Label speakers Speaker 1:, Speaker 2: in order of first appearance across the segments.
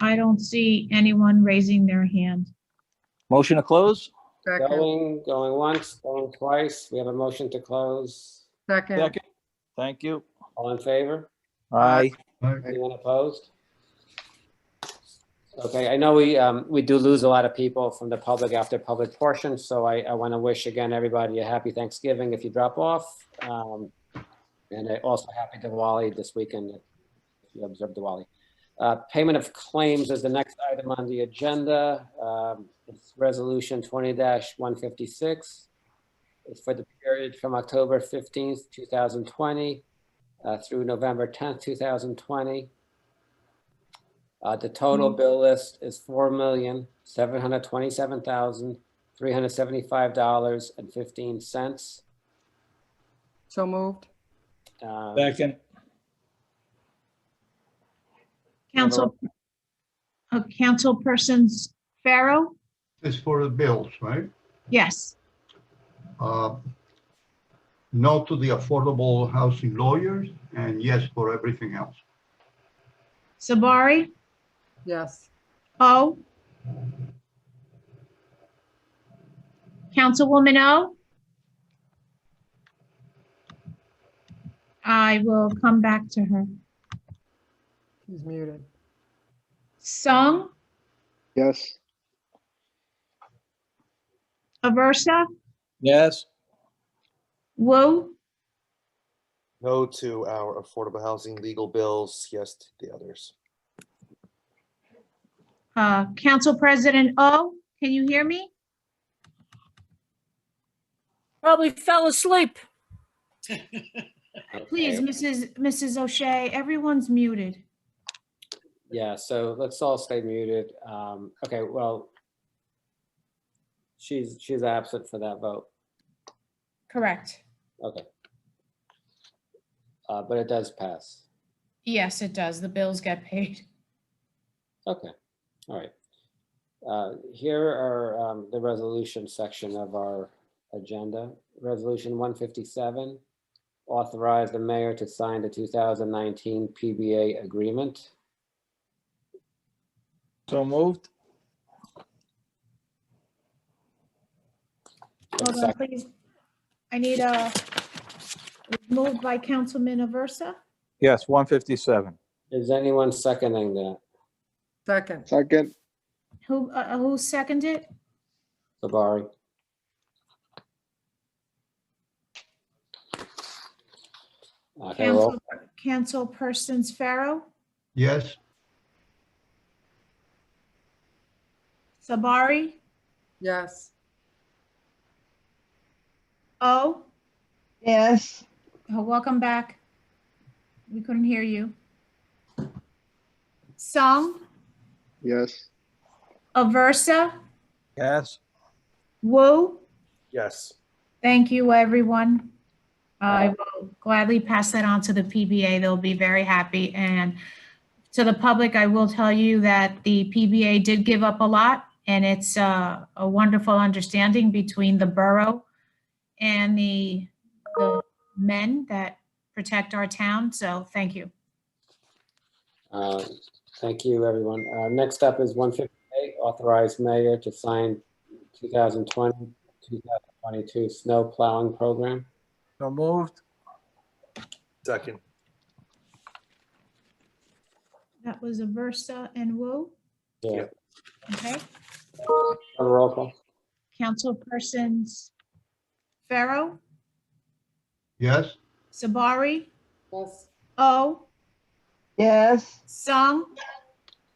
Speaker 1: I don't see anyone raising their hand.
Speaker 2: Motion to close?
Speaker 3: Second,
Speaker 4: Going, going once, going twice. We have a motion to close.
Speaker 3: second,
Speaker 2: Second. Thank you.
Speaker 4: All in favor?
Speaker 2: Aye.
Speaker 4: Anyone opposed? Okay, I know we, um, we do lose a lot of people from the public after public portion, so I, I want to wish again, everybody a happy Thanksgiving if you drop off. Um, and I also happy Diwali this weekend, if you observe Diwali. Uh, payment of claims is the next item on the agenda. Um, it's resolution twenty one fifty-six. It's for the period from October fifteenth, two thousand twenty uh, through November 10th, 2020. Uh, The total bill list is $4,727,375.15.
Speaker 3: so moved.
Speaker 4: Um,
Speaker 2: Second.
Speaker 1: Council, uh, Councilpersons Pharaoh?
Speaker 5: It's for the bills, right?
Speaker 1: Yes.
Speaker 5: Uh, No to the affordable housing lawyers and yes for everything else.
Speaker 1: Sabari?
Speaker 3: Yes,
Speaker 1: O? Councilwoman O? I will come back to her.
Speaker 3: he's muted.
Speaker 1: Sung?
Speaker 6: yes,
Speaker 1: Aversa?
Speaker 2: Yes.
Speaker 1: Woo?
Speaker 7: No to our affordable housing legal bills, yes to the others.
Speaker 1: Uh, Council President O? Can you hear me?
Speaker 8: Probably fell asleep.
Speaker 1: Please,
Speaker 4: okay.
Speaker 1: Mrs. Mrs. O'Shea, everyone's muted.
Speaker 4: Yeah, so let's all stay muted. Um, Okay, well, she's, she's absent for that vote.
Speaker 1: Correct.
Speaker 4: Okay. Uh, But it does pass.
Speaker 1: Yes, it does. The bills get paid.
Speaker 4: Okay, all right. Uh, Here are um, the resolution section of our agenda. Resolution 157, authorize the mayor to sign the 2019 PBA agreement.
Speaker 2: So moved?
Speaker 1: Hold on, please. I need a, moved by Councilman Aversa.
Speaker 2: Yes, 157.
Speaker 4: Is anyone seconding that?
Speaker 3: Second,
Speaker 6: second,
Speaker 1: Who, uh, who seconded it?
Speaker 4: Sabari? Okay, roll.
Speaker 1: Council, Councilpersons Pharaoh,
Speaker 5: Yes,
Speaker 1: Sabari,
Speaker 3: yes,
Speaker 1: O.
Speaker 9: yes,
Speaker 1: Uh, Welcome back. We couldn't hear you. Sung,
Speaker 6: yes,
Speaker 1: Aversa,
Speaker 2: Yes.
Speaker 1: Woo.
Speaker 7: Yes,
Speaker 1: Thank you, everyone. I will gladly pass that on to the PBA. They'll be very happy. And to the public, I will tell you that the PBA did give up a lot, and it's uh, a wonderful understanding between the borough and the the men that protect our town. So thank you.
Speaker 4: Uh, Thank you, everyone. Uh, Next up is 158, authorize mayor to sign 2020, 2022 snow plowing program.
Speaker 2: So moved?
Speaker 7: second,
Speaker 1: That was Aversa and Wu.
Speaker 4: Yeah.
Speaker 1: Okay.
Speaker 4: Roll call.
Speaker 1: Councilpersons Pharaoh,
Speaker 5: yes,
Speaker 1: Sabari,
Speaker 3: yes,
Speaker 1: O,
Speaker 9: yes,
Speaker 1: Sung,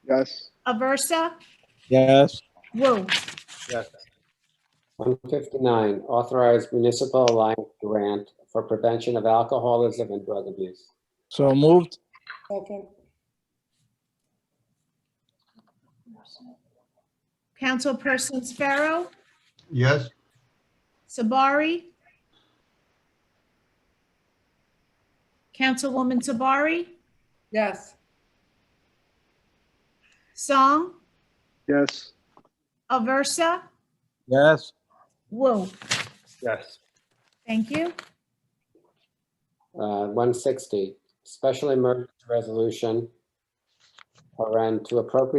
Speaker 6: yes,
Speaker 1: Aversa,
Speaker 2: Yes.
Speaker 1: Woo.
Speaker 7: yes,
Speaker 4: 159, authorize municipal alliance grant for prevention of alcoholism and drug abuse.
Speaker 2: So moved?
Speaker 3: second,
Speaker 1: Councilpersons Pharaoh,
Speaker 5: yes,
Speaker 1: Sabari. Councilwoman Sabari,
Speaker 3: yes,
Speaker 1: Song,
Speaker 6: yes,
Speaker 1: Aversa,
Speaker 2: Yes.
Speaker 1: Woo.
Speaker 7: yes,
Speaker 1: Thank you.
Speaker 4: Uh, 160, special emergency resolution, paren, to appropriate